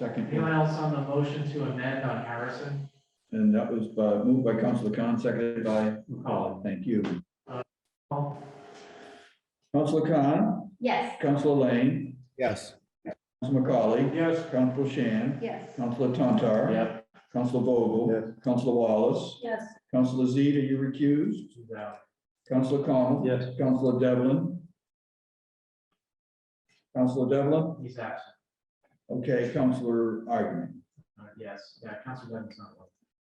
Second, Anyone else on the motion to amend on Harrison? and that was uh, moved by Counselor Khan, seconded by McCollum. Thank you. Paul? Counselor Khan, Yes. Counselor Lane, yes, Counselor McCauley, Yes. Counselor Shan, Yes. Counselor Tontar. Yep. Counselor Vogel. Counselor Wallace. Yes. Counselor Z, are you recused? No. Counselor Connell. Yes. Counselor Devlin. Counselor Devlin, He's absent. okay, Counselor Argument. Uh, Yes, yeah, Council Devon's not one.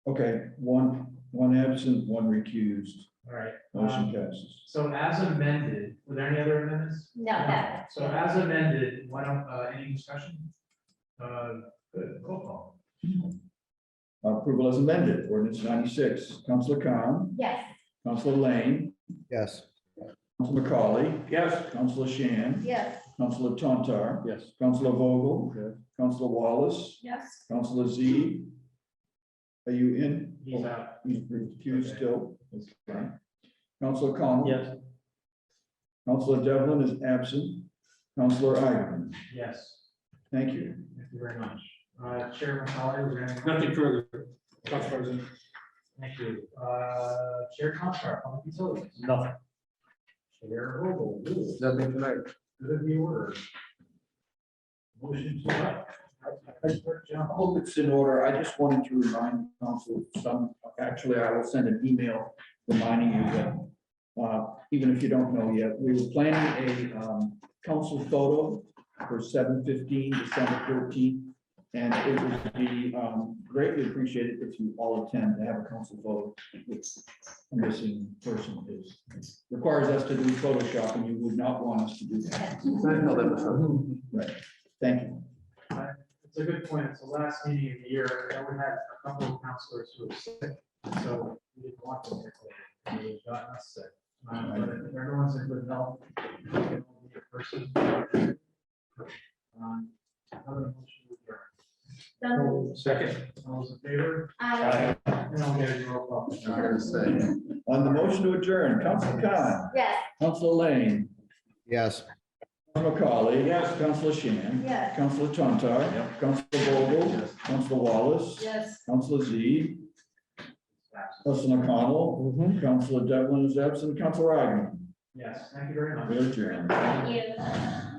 Okay, one, one absent, one recused, All right. motion um, passes. So as amended, were there any other amendments? No, that. So as amended, why don't, uh, any discussion? Uh, good, roll call. Approval as amended, ordinance ninety-six, Counselor Khan, Yes. Counselor Lane, yes, Counselor McCauley, Yes. Counselor Shan, Yes. Counselor Tontar, Yes. Counselor Vogel, Counselor Wallace, Yes. Counselor Z. Are you in? He's out. He's recused still. Okay. Counselor Connell. Yes. Counselor Devlin is absent. Counselor Ivan, Yes, thank you. thank you very much. Uh, Chair McCollum, was there any? Nothing further, Council President. Thank you. Uh, Chair Contract, Public Utilities. Nothing. Chair Vogel, rules, nothing tonight. good of the order. Motion to what? Vice Clerk I Jones. hope it's in order. I just wanted to remind council of some, actually, I will send an email reminding you that uh, even if you don't know yet, we were planning a um, council photo for seven fifteen, December thirteenth. And it would be um, greatly appreciated if you all attend to have a council photo. It's a missing person is requires us to do Photoshop and you would not want us to do that. Right. Thank you. It's a good point. It's the last meeting of the year. and we had a couple of counselors who were sick, so we didn't want them here. today. They got us sick. Um, But if everyone's in good health. we can all be a person. Uh, Um, another motion to adjourn. Second. All those in favor? I. And I'll get a roll call. On the motion to adjourn, Council Khan, Yes. Council Lane, yes. Council McCauley. Yes. Council Shan. Yes. Council Tontar. Council Vogel. Council Wallace. Yes. Council Z. Council McConnell. Council Devlin is absent. Council Wagner. Yes, thank you very much. We adjourn. Thank you.